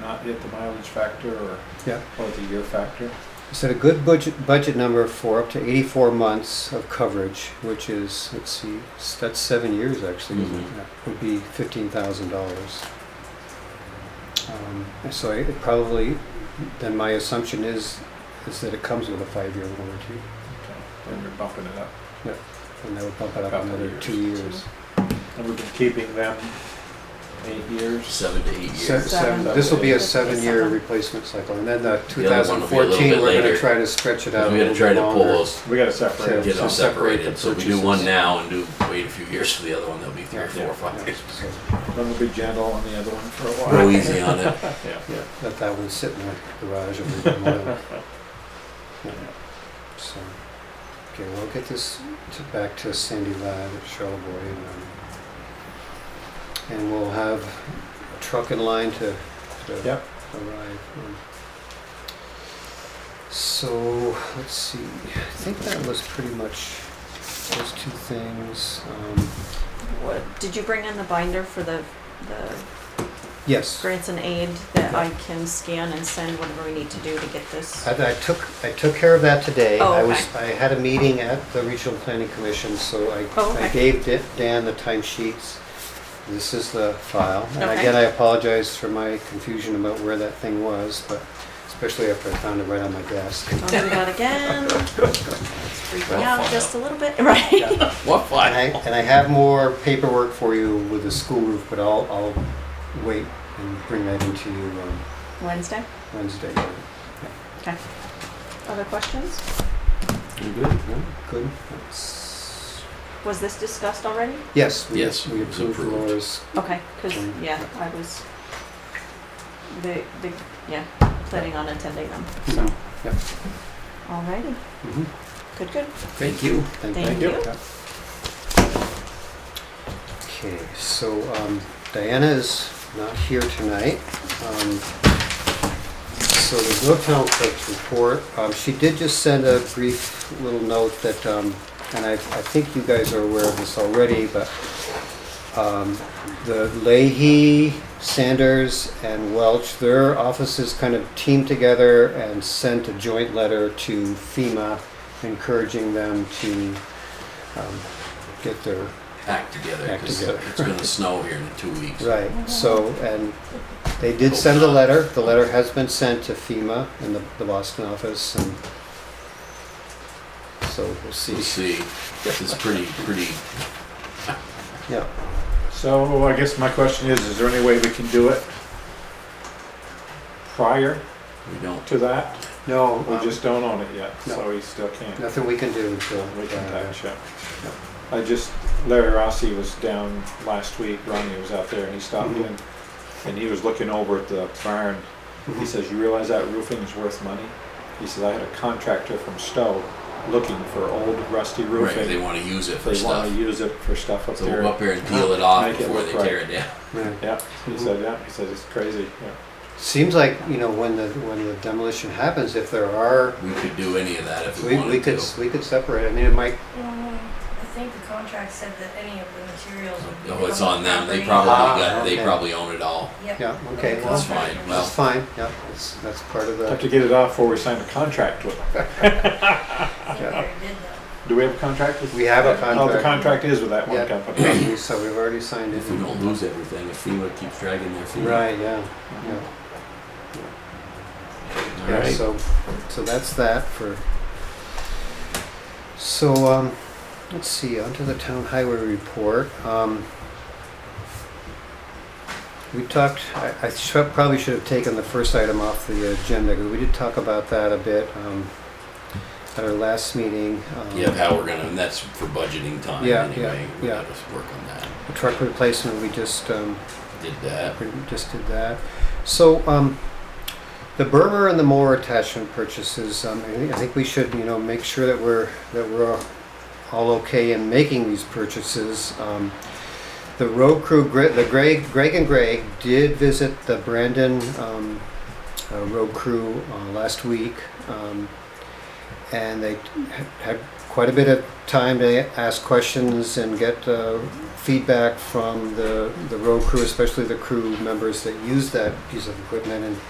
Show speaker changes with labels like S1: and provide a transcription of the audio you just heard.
S1: not hit the mileage factor or,
S2: Yeah.
S1: or the year factor.
S2: Set a good budget, budget number for up to 84 months of coverage, which is, let's see, s- that's seven years actually, isn't it?
S3: Mhm.
S2: Yeah, would be $15,000. Um, So I- it probably, then my assumption is, is that it comes with a five-year warranty,
S1: Okay, And we're bumping it up.
S2: and that would bump it up
S1: Couple
S2: another
S1: years.
S2: two years.
S1: And we've been keeping them eight years.
S3: seven to eight
S2: Se-
S3: years.
S4: Seven.
S2: seven- This will be a
S4: Seven.
S2: seven-year replacement cycle, and then the
S3: The other one will be a little
S2: 2014,
S3: bit
S2: we're gonna
S3: later.
S2: try to stretch it out a
S3: We're gonna
S2: little
S3: try
S2: bit
S3: to pull
S2: longer.
S3: those,
S1: We gotta separate
S2: Yeah.
S1: them.
S3: get them
S2: So separate
S3: separated,
S2: the
S3: so we do one
S2: purchases.
S3: now and do, wait a few years for the other one, there'll be three or four or five years.
S2: So
S1: One will be gentle on the other one for a while.
S3: Go easy on it.
S1: Yeah.
S2: Let that one sit in the garage and leave it alone. So, okay, we'll get this to, back to Sandy Ladd at Charlevoix and, um, and we'll have a truck in line to, to
S1: Yep.
S2: arrive. um. So, let's see, I think that was pretty much those two things. Um,
S4: What, did you bring in the binder for the, the
S2: yes,
S4: grants and aid that I can scan and send whatever we need to do to get this?
S2: I, I took, I took care of that today.
S4: Oh,
S2: I was, I had a meeting at the Regional Planning Commission, so I,
S4: Oh,
S2: I
S4: okay.
S2: gave Da- Dan the timesheets. This is the file. And
S4: Okay.
S2: again, I apologize for my confusion about where that thing was, but especially after I found it right on my desk.
S4: Don't do that again. It's freaking
S3: Well, fine.
S4: me out just a little bit, right?
S3: What
S2: And I,
S3: file?
S2: and I have more paperwork for you with the school roof, but I'll, I'll wait and bring that into you um,
S4: Wednesday,
S2: Wednesday.
S4: okay. Other questions?
S3: You good?
S2: Good? That's-
S4: Was this discussed already?
S2: Yes. we-
S3: Yes,
S2: We
S3: it's
S2: approved
S3: approved.
S2: Laura's
S4: Okay, because,
S2: Mm.
S4: yeah, I was, the, the, yeah, planning on attending them.
S2: So, yep.
S4: Alrighty,
S2: Mhm.
S4: good, good.
S3: Thank you.
S4: Thank you.
S2: Okay, so um, Diana is not here tonight. Um, So there's no town clerk's report. Um, She did just send a brief little note that, um, and I, I think you guys are aware of this already, but um, the Leahy, Sanders, and Welch, their offices kind of teamed together and sent a joint letter to FEMA encouraging them to um, get their
S3: Act together,
S2: Act
S3: 'cause
S2: together.
S3: it's gonna snow here in two weeks.
S2: Right, so, and they did send a letter, the letter has been sent to FEMA in the, the Boston office, and so we'll
S3: We'll
S2: see,
S3: see. It's pretty, pretty,
S2: yeah.
S1: So I guess my question is, is there any way we can do it prior
S3: we don't,
S1: to that?
S2: No,
S1: We just don't own it yet,
S2: no.
S1: so he still can't.
S2: Um, nothing we can do until.
S1: We can
S2: uh,
S1: catch up. I just, Larry Rossi was down last week, Ronnie was out there and he stopped
S2: Mhm.
S1: in
S3: Mm-hmm.
S1: and he was looking over at the barn. He
S2: mhm.
S1: says, you realize that roofing is worth money? He says, I had a contractor from Stowe looking for old rusty
S3: right, they
S1: roofing.
S3: wanna use it for
S1: They
S3: stuff.
S1: wanna use it for stuff up
S3: So we'll
S1: there.
S3: go up here and peel it off
S1: Make it
S3: before
S1: look
S3: they tear it down.
S2: Yeah.
S1: Yeah, he
S2: Mhm.
S3: Mm-hmm.
S1: said, yeah, he says, it's crazy, yeah.
S2: Seems like, you know, when the, when the demolition happens, if there are,
S3: We could do any of that if we
S2: we, we
S3: wanted
S2: could,
S3: to.
S2: we could separate, I mean, it might,
S5: Um, I think the contract said that any of the materials would be.
S3: No, it's
S5: from
S3: on them, they
S5: property.
S3: probably
S2: Ah,
S3: got, they
S2: okay.
S3: probably own it all.
S5: Yep.
S2: yeah, okay,
S5: The
S2: well,
S3: That's fine.
S5: contract.
S3: Well-
S2: that's fine, yeah, that's, that's part of
S1: Have
S2: the,
S1: to get it off before we sign a contract with them.
S5: I think
S2: yeah.
S5: they did that.
S1: Do we have a contract with?
S2: we have
S1: Oh,
S2: a
S1: the
S2: contract.
S1: contract is with that one
S2: Yeah.
S1: company.
S2: So we've already signed it.
S3: If we don't lose everything, if FEMA keeps dragging their feet.
S2: Right, yeah, yeah.
S3: All
S2: Yeah,
S3: right,
S2: so, so that's that for, so, um, let's see, onto the town highway report, um. We talked, I, I should, probably should have taken the first item off the agenda, because we did talk about that a bit, um, at our last meeting. um,
S3: yeah, how we're gonna, and that's for budgeting time
S2: Yeah,
S3: anyway,
S2: yeah,
S3: we
S2: yeah.
S3: gotta work on that,
S2: The truck replacement, we just, um,
S3: did that.
S2: We just did that. So, um, the Burmer and the mower attachment purchases, um, I think- I think we should, you know, make sure that we're, that we're all okay in making these purchases. Um, The road crew, Gre- the Greg, Greg and Greg did visit the Brandon, um, uh, road crew, uh, last week. Um, and they had quite a bit of time to ask questions and get uh, feedback from the, the road crew, especially the crew members that use that piece of equipment. And